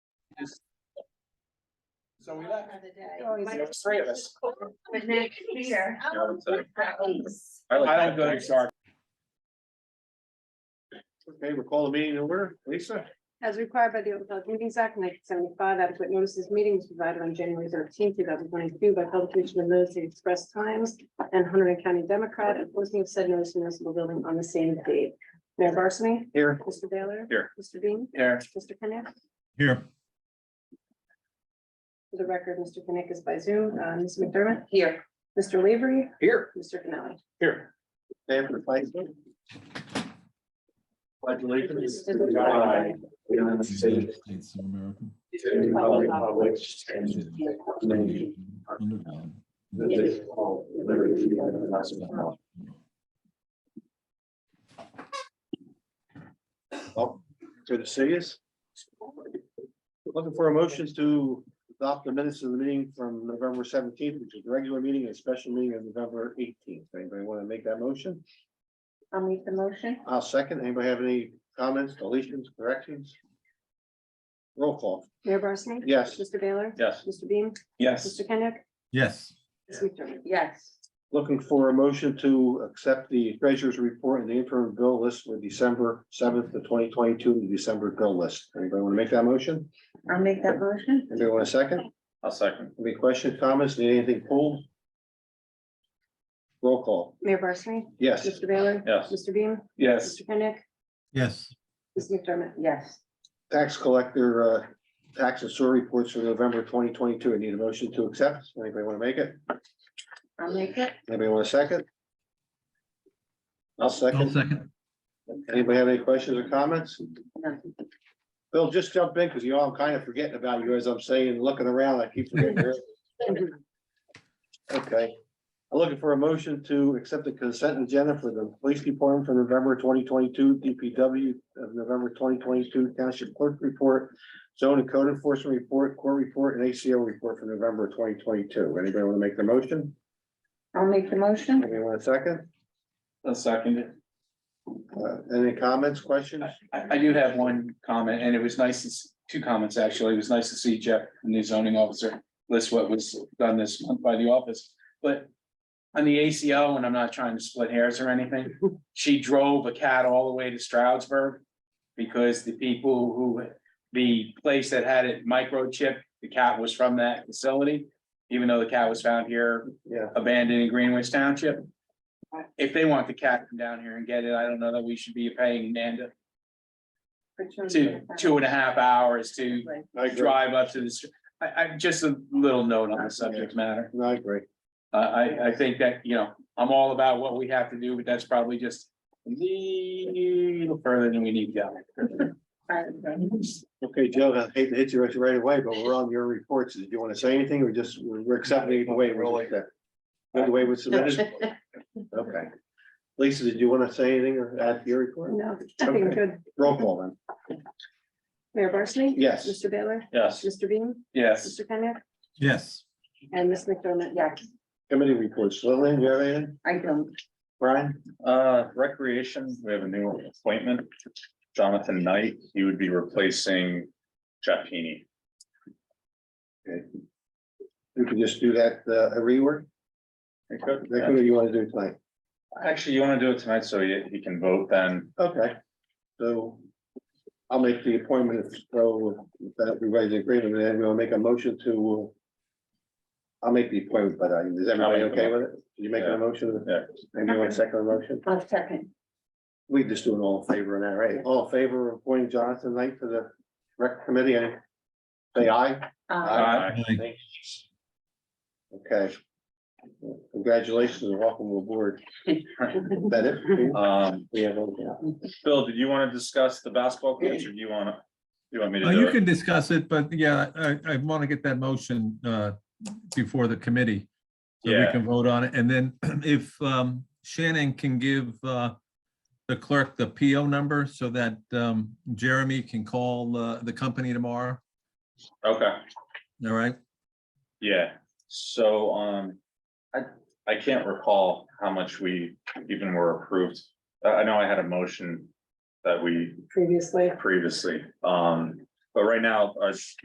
just. So we left. Another day. Always- There was three of us. But next year. Yeah, I would say. I like don't go to that. Sark. Okay, we'll call the meeting over. Lisa? As required by the Open Public Meetings Act nineteen seventy-five, adequate notices meetings provided on January thirteenth, two thousand twenty-two by publication of notice of express times and Hunter County Democrat and posting of said notice in municipal building on the same date. Mayor Barsney? Here. Mr. Baylor? Here. Mr. Bean? Here. Mr. Kenneth? Here, For the record, Mr. Kenneth is by Zoom. Uh, Ms. McDermott? Here. Mr. Lavery? Here. Mr. Canali? Here. Stand for the flag. Pledge allegiance. to the flag of the United United States, States of America. to the republic of which stands one Under God. nation, liberty, and justice. Well, to the cities. Looking for a motion to adopt the minutes of the meeting from November seventeenth, which is the regular meeting, and special meeting of November eighteenth. Anybody want to make that motion? I'll make the motion. I'll second. Anybody have any comments, deletions, corrections? Roll call. Mayor Barsney? Yes. Mr. Baylor? Yes. Mr. Bean? Yes. Mr. Kenneth? Yes, Ms. McDermott? Yes. Looking for a motion to accept the treasurer's report and the interim bill list for December seventh to twenty twenty-two, the December bill list. Anybody want to make that motion? I'll make that motion. Anybody want a second? I'll second. Any questions, comments? Need anything pulled? Roll call. Mayor Barsney? Yes. Mr. Baylor? Yes. Mr. Bean? Yes. Mr. Kenneth? yes, Ms. McDermott? Yes. Tax collector, uh, tax and sewer reports for November twenty twenty-two. I need a motion to accept. Anybody want to make it? I'll make it. Anybody want a second? I'll I'll second. second. Anybody have any questions or comments? No. Bill, just jump in because you all, I'm kind of forgetting about you as I'm saying, looking around, I keep forgetting. yours. Okay, I'm looking for a motion to accept the consent agenda for the police department for November twenty twenty-two, DPW of November twenty twenty-two, township clerk report, zone and code enforcement report, court report, and ACO report for November twenty twenty-two. Anybody want to make the motion? I'll make the motion. Anybody want a second? I'll second it. Uh, Any comments, questions? I, I do have one comment, and it was nice, to s- two comments actually. It was nice to see Jeff, the new zoning officer, list what was done this month by the office, but on the ACO, and I'm not trying to split hairs or anything, she drove a cat all the way to Stroudsburg because the people who, the place that had it microchipped, the cat was from that facility, even though the cat was found here Yeah. abandoned in Greenwich Township. If they want the cat to come down here and get it, I don't know that we should be paying Nanda two, two and a half hours to I agree. drive up to the, str- I, I, just a little note on the subject matter. No, I agree. I, I, I think that, you know, I'm all about what we have to do, but that's probably just a little further than we need to go. Okay, Joe, I hate to hit you right- right away, but we're on your reports. Do you want to say anything or just, we're we're accepting the way it was accepted? The way it was submitted? Okay. Lisa, did you want to say anything or add to your report? No, I think I'm good. Roll call then. Mayor Barsney? Yes. Mr. Baylor? Yes, Mr. Bean? yes. Mr. Kenneth? yes, And Ms. McDermott? Yes, Committee reports. Lillian, you have anything? I don't. Brian? Uh, recreation, we have a new appointment, Jonathan Knight, he would be replacing Jeff Heaney. You can just do that, uh, rework. That's what you want to do tonight. Actually, you wanna do it tonight, so he, he can vote then, Okay. So I'll make the appointment. if So if that everybody's in agreement, then we'll make a motion to I'll make the appointment, but uh, is everybody I'll make the okay with it? You making a Yeah. motion? yeah, Maybe one second the motion. I'll second. We just do an all in favor on that, right? All in favor of appointing Jonathan Knight to the rec committee. and Say aye. Uh, Aye. Aye. I- Okay. Congratulations and welcome aboard. Uh, Is That it? um, We have, all- Bill, did you wanna discuss the basketball coach, or do you wanna, you want me Uh, to you do it? can discuss it, but yeah, I, I want to get that motion, uh, before the committee. So we Yeah. can vote on it, and then if, um, Shannon can give, uh, the clerk the PO number so that, um, Jeremy can call, uh, the company tomorrow, Okay, all right? yeah, so, um, I, I can't recall how much we even were approved, I, I know I had a motion that we Previously. previously, um, but right now, uh,